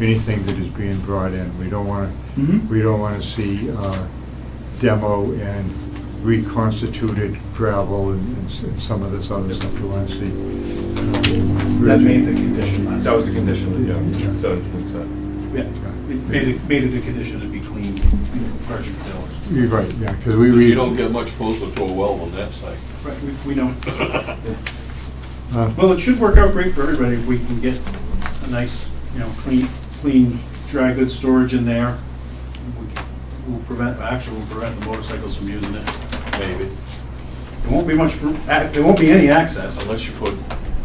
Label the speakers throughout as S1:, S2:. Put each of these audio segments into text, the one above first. S1: anything that is being brought in. We don't want to,
S2: Mhm.
S1: we don't want to see uh, demo and reconstituted gravel and- and s- and some of this other stuff. We want to see. uh,
S2: That made the
S1: rigid-
S2: condition last.
S3: That was the condition,
S1: Yeah.
S3: yeah, so it makes sense.
S2: Yeah, it made it, made it a condition to be clean, you know, fresh and filled.
S1: You're right, yeah, because we read.
S4: You don't get much closer to a well than that site.
S2: Right, we, we don't.
S1: uh,
S2: Well, it should work out great for everybody if we can get a nice, you know, clean, clean dry goods storage in there. We can- We'll prevent, actually, we'll prevent the motorcycles from using it.
S4: Maybe,
S2: There won't be much, room- ac- there won't be any access.
S4: unless you put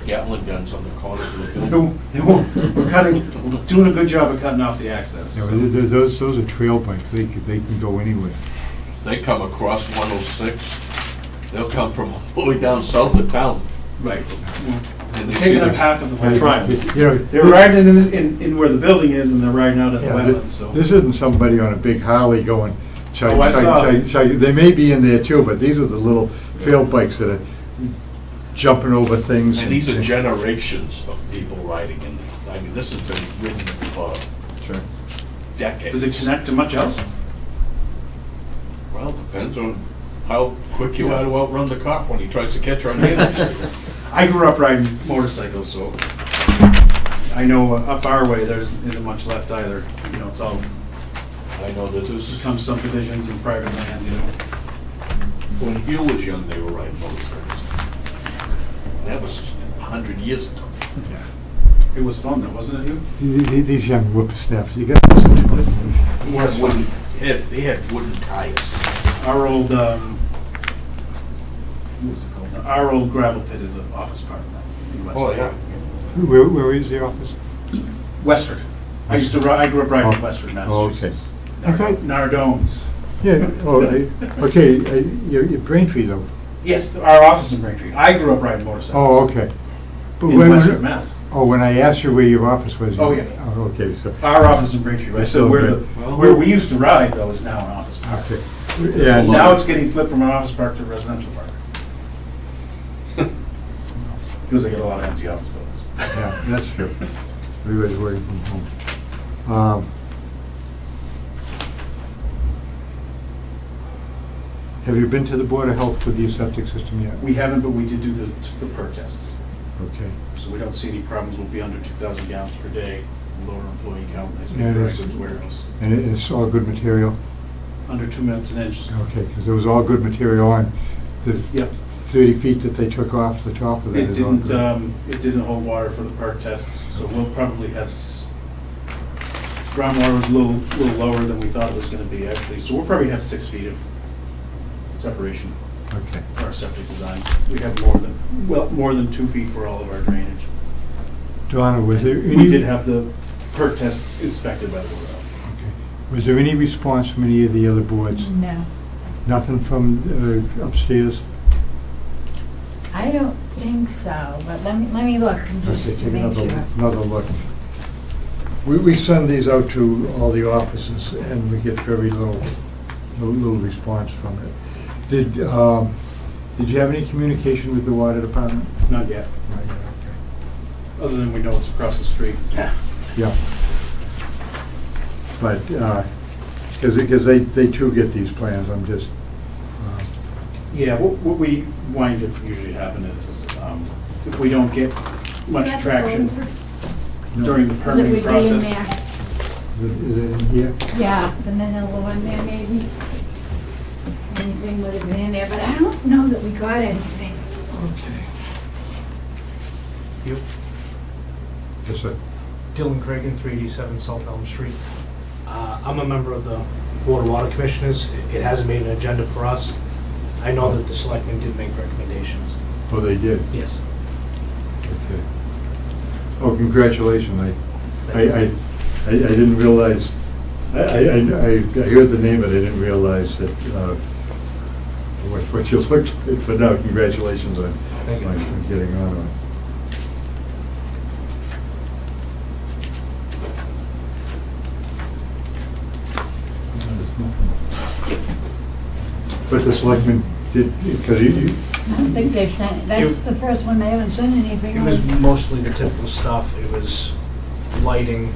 S4: Gatling guns on the corners of the
S2: There
S4: building.
S2: won't- there won't- We're cutting, we're doing a good job of cutting off the access.
S1: you know, th- th- Those, those are trail bikes, they can, they can go anywhere.
S4: They come across 106, they'll come from all the way down south of town.
S2: Right.
S4: and they see
S2: Taking
S4: the-
S2: up half of the whole triangle.
S1: You know,
S2: They're riding in, this- in, in where the building is and they're riding out at the
S1: Yeah, thi-
S2: wetlands, so.
S1: This isn't somebody on a big Harley going, chug,
S2: Oh, I
S1: chug,
S2: saw.
S1: chug, chug. They may be in there too, but these are the little trail bikes that are jumping over things.
S4: And these are generations of people riding in it. I mean, this has been ridden for
S3: Sure.
S4: decades.
S2: Does it connect to much else?
S4: Well, depends on how quick you are to outrun the cop when he tries to catch you on the interstate.
S2: I grew up riding motorcycles, so I know up our way, there's, isn't much left either. You know, it's all
S4: I know that this is,
S2: become subdivisions and private land, you know.
S4: when Hill was young, they were riding motorcycles. That was a hundred years ago.
S2: It was fun though, wasn't it, Hugh?
S1: Th- th- These young whippersnappers, you gotta listen to it.
S4: They had wooden, they had- they had wooden tires.
S2: Our old, um, what was it called? Our old gravel pit is an office park now. in Westford.
S4: Oh, yeah.
S1: Where, where is the office?
S2: Westford. I used to ri, I grew up riding in
S1: Oh.
S2: Westford,
S1: Oh, okay.
S2: Massachusetts.
S1: I thought-
S2: Nardones.
S1: Yeah, oh, I- okay, I- your, your Braintree though.
S2: Yes, our office in Braintree. I grew up riding motorcycles.
S1: Oh, okay. But
S2: In
S1: when-
S2: Westford, Mass.
S1: Oh, when I asked you where your office was. you-
S2: Oh, yeah.
S1: Oh, okay, so,
S2: Our office in Braintree,
S1: I
S2: right,
S1: still
S2: so where, the-
S4: agree.
S2: where we used to ride though is now an office park.
S1: okay. Yeah,
S4: Well,
S2: Now it's getting flipped from an office park to a residential park. Because they get a lot of empty office buildings.
S1: Yeah, that's true. Everybody's working from home. Um, Have you been to the Board of Health with your septic system yet?
S2: We haven't, but we did do the, the perk tests,
S1: Okay.
S2: so we don't see any problems, we'll be under two thousand gallons per day, lower employee count, as we
S1: Yeah, it
S2: direct
S1: is.
S2: goods warehouse.
S1: And it- it's all good material?
S2: Under two minutes an inch,
S1: Okay, because it was all good material on the
S2: yep.
S1: 30 feet that they took off the top of
S2: It
S1: that is all
S2: didn't,
S1: good.
S2: um, it didn't hold water for the perk test, so we'll probably have, s- groundwater was a little, little lower than we thought it was gonna be actually, so we'll probably have six feet of separation
S1: Okay.
S2: for our septic design. We have more than, well, more than two feet for all of our drainage.
S1: Donna, was there any...
S2: We did have the perk test inspected by the Board of Health.
S1: Okay. Was there any response from any of the other boards?
S5: No,
S1: Nothing from uh, upstairs?
S5: I don't think so, but let me, let me look and just
S1: Okay, take
S5: make
S1: another,
S5: sure.
S1: another look. We, we send these out to all the offices and we get very little, little little response from it. Did, um, did you have any communication with the water department?
S2: Not yet,
S1: Not yet, okay.
S2: other than we know it's across the street.
S1: Yeah. But, uh 'cause because they, they too get these plans, I'm just, um,
S2: Yeah, what, what we wind up usually happening is, um, if we don't get much
S5: Is that the
S2: traction
S5: folder?
S1: no.
S2: during the
S5: Is it
S2: permitting
S5: would be in
S2: process.
S1: Is it- is it in here?
S5: there? Yeah, the manila one there maybe. Anything would have been in there, but I don't know that we got anything.
S1: Okay.
S6: You,
S1: Yes, sir.
S6: Dylan Cragen, 387 South Elm Street. Uh, I'm a member of the Board of Water Commissioners. It hasn't made an agenda for us. I know that the selectmen did make recommendations.
S1: Oh, they did?
S6: Yes.
S1: Okay. Oh, congratulations, I, I, I, I I didn't realize, I, I, I- I I heard the name, but I didn't realize that, uh, what, what you looked like, but now, congratulations on,
S6: Thank you.
S1: on getting on. But the selectmen did, because you, you,
S5: I don't think they've sent, that's
S6: It-
S5: the first one, they haven't sent anything
S6: It was
S5: on.
S6: mostly the typical stuff. It was lighting,